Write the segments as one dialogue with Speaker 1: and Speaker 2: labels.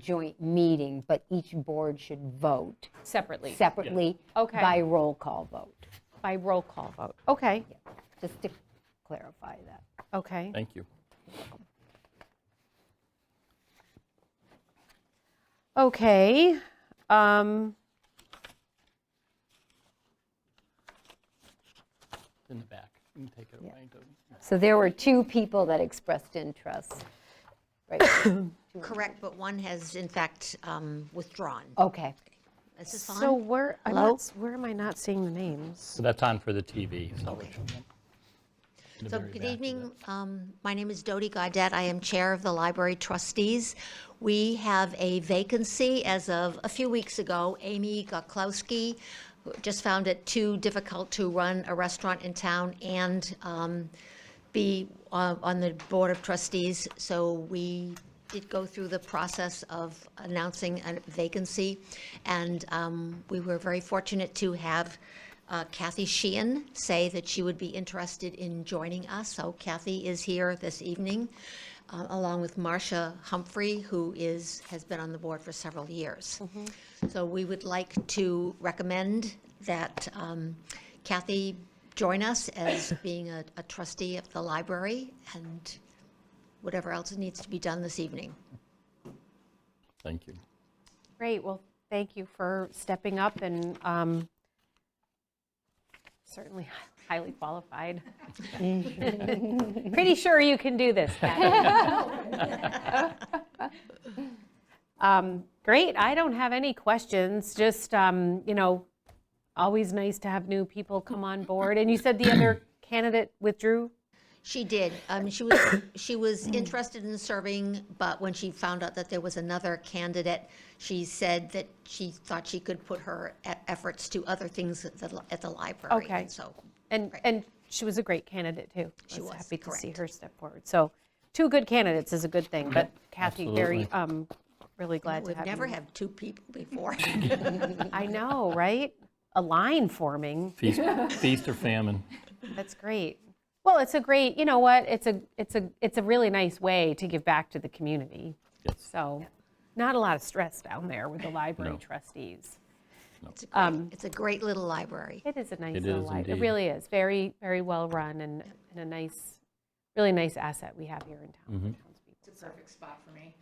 Speaker 1: joint meeting, but each board should vote
Speaker 2: separately,
Speaker 1: separately
Speaker 2: Okay.
Speaker 1: by roll call vote,
Speaker 2: by roll call vote. Okay,
Speaker 1: just to clarify that.
Speaker 2: okay.
Speaker 3: Thank you.
Speaker 2: Okay. um,
Speaker 3: In the back. You can take it away. Doesn't-
Speaker 1: So there were two people that expressed interest. Right,
Speaker 4: Correct, but one has in fact um, withdrawn.
Speaker 1: okay.
Speaker 4: This is
Speaker 2: So
Speaker 4: fine.
Speaker 2: where, I'm
Speaker 4: Hello?
Speaker 2: not s- where am I not seeing the names?
Speaker 3: So that's on for the TV. so it should be in the
Speaker 4: So
Speaker 3: very
Speaker 4: good
Speaker 3: back of
Speaker 4: evening.
Speaker 3: it.
Speaker 4: Um, My name is Dodie Gaudet. I am Chair of the Library Trustees. We have a vacancy as of a few weeks ago. Amy Goklowski who just found it too difficult to run a restaurant in town and um, be uh, on the Board of Trustees. So we did go through the process of announcing a vacancy, and um, we were very fortunate to have uh, Kathy Sheehan say that she would be interested in joining us. So Kathy is here this evening, uh, along with Marcia Humphrey, who is, has been on the board for several years. So we would like to recommend that um, Kathy join us as being a a trustee of the library and whatever else needs to be done this evening.
Speaker 3: Thank you.
Speaker 2: Great, well, thank you for stepping up and um, certainly highly qualified. Pretty sure you can do this, Kathy. Um, Great, I don't have any questions, just, um, you know, always nice to have new people come on board. And you said the other candidate withdrew?
Speaker 4: She did. Um, She was, she was interested in serving, but when she found out that there was another candidate, she said that she thought she could put her e- efforts to other things at the, li- at the library.
Speaker 2: Okay.
Speaker 4: And So
Speaker 2: And, and she was a great candidate, too.
Speaker 4: She was,
Speaker 2: happy to see
Speaker 4: correct.
Speaker 2: her step forward. So two good candidates is a good thing, but Kathy, very,
Speaker 3: Absolutely.
Speaker 2: um, really glad to
Speaker 4: we've
Speaker 2: have you.
Speaker 4: never had two people before.
Speaker 2: I know, right? A line forming.
Speaker 3: Feast feast or famine.
Speaker 2: That's great. Well, it's a great, you know what? It's a, it's a, it's a really nice way to give back to the community.
Speaker 3: Yes.
Speaker 2: So not a lot of stress down there with the library
Speaker 3: No.
Speaker 2: trustees.
Speaker 4: It's a
Speaker 2: Um,
Speaker 4: great- it's a great little library.
Speaker 2: It is a nice
Speaker 3: It
Speaker 2: little
Speaker 3: is
Speaker 2: library. It
Speaker 3: indeed.
Speaker 2: really is. Very, very well run and, and a nice, really nice asset we have here in
Speaker 3: Mm-hmm.
Speaker 2: town. It's a perfect spot for me.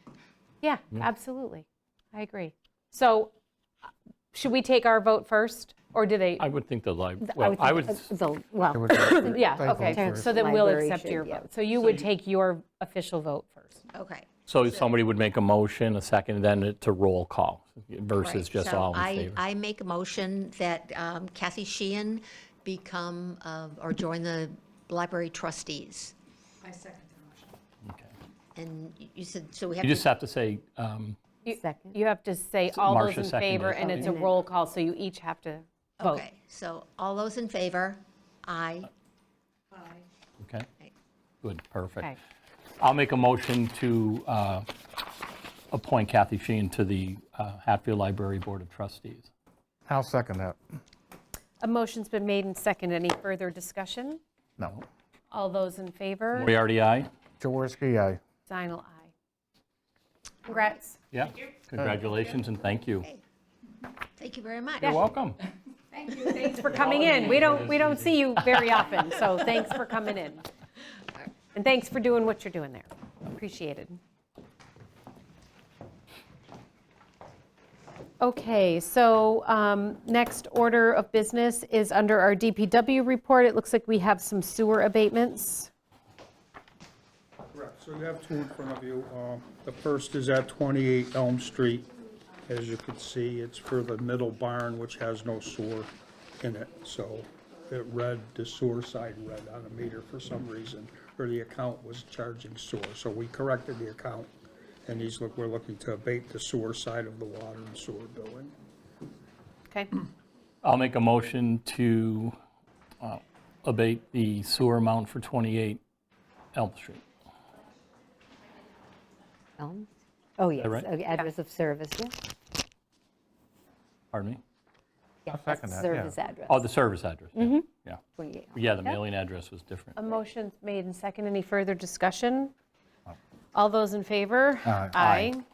Speaker 2: Yeah, absolutely. I agree. So uh, should we take our vote first or do they?
Speaker 3: I would think the library, well,
Speaker 1: would
Speaker 3: I
Speaker 1: think-
Speaker 3: would,
Speaker 1: uh, the- Well,
Speaker 2: Yeah,
Speaker 5: I vote
Speaker 2: okay,
Speaker 5: first.
Speaker 2: so then we'll
Speaker 1: Library
Speaker 2: accept
Speaker 1: should,
Speaker 2: your
Speaker 1: yeah.
Speaker 2: vote. So you would take your official vote first.
Speaker 4: Okay.
Speaker 3: so somebody would make a motion, a second, then it to roll call versus
Speaker 4: Right,
Speaker 3: just
Speaker 4: so
Speaker 3: all in
Speaker 4: I-
Speaker 3: favor.
Speaker 4: I make a motion that um, Kathy Sheehan become, uh, or join the library trustees.
Speaker 3: Okay.
Speaker 4: And you- you said, so we have
Speaker 3: You just
Speaker 4: to,
Speaker 3: have to say, um,
Speaker 2: You-
Speaker 1: Second.
Speaker 2: You have to say all those
Speaker 3: Marcia
Speaker 2: in favor,
Speaker 3: seconded.
Speaker 2: and it's a roll call, so you each have to vote.
Speaker 4: okay, so all those in favor? Aye.
Speaker 3: okay? Good,
Speaker 2: Okay.
Speaker 3: perfect. I'll make a motion to uh, appoint Kathy Sheehan to the uh, Hatfield Library Board of Trustees.
Speaker 5: I'll second that.
Speaker 2: A motion's been made and seconded. Any further discussion?
Speaker 5: No.
Speaker 2: All those in favor?
Speaker 3: Moriarty, aye?
Speaker 5: Jaworski, aye.
Speaker 2: Zinal, aye. Congrats.
Speaker 3: Yeah. Congratulations and thank you.
Speaker 4: Thank you very much.
Speaker 3: You're welcome.
Speaker 2: Thanks for coming in. We don't, we don't see you very often, so thanks for coming in. And thanks for doing what you're doing there. Appreciated. Okay, so um, next order of business is under our DPW report. It looks like we have some sewer abatements.
Speaker 6: Correct, so you have two in front of you. Uh, The first is at 28 Elm Street. As you can see, it's for the middle barn, which has no sewer in it, so it read, the sewer side read on the meter for some reason, or the account was charging sewer, so we corrected the account, and he's, look, we're looking to abate the sewer side of the water and sewer billing.
Speaker 2: Okay,
Speaker 3: I'll make a motion to uh, abate the sewer amount for 28 Elm Street.
Speaker 1: Elm? Oh, yes,
Speaker 3: right?
Speaker 1: okay, address of service, yeah.
Speaker 3: Pardon me?
Speaker 5: I'll second that, yeah.
Speaker 1: Service address,
Speaker 3: Oh, the service address. yeah, Yeah.
Speaker 1: 28.
Speaker 3: Yeah, the mailing address was different.
Speaker 2: a motion's made and second. Any further discussion? All those in favor?
Speaker 5: Aye.
Speaker 2: Aye.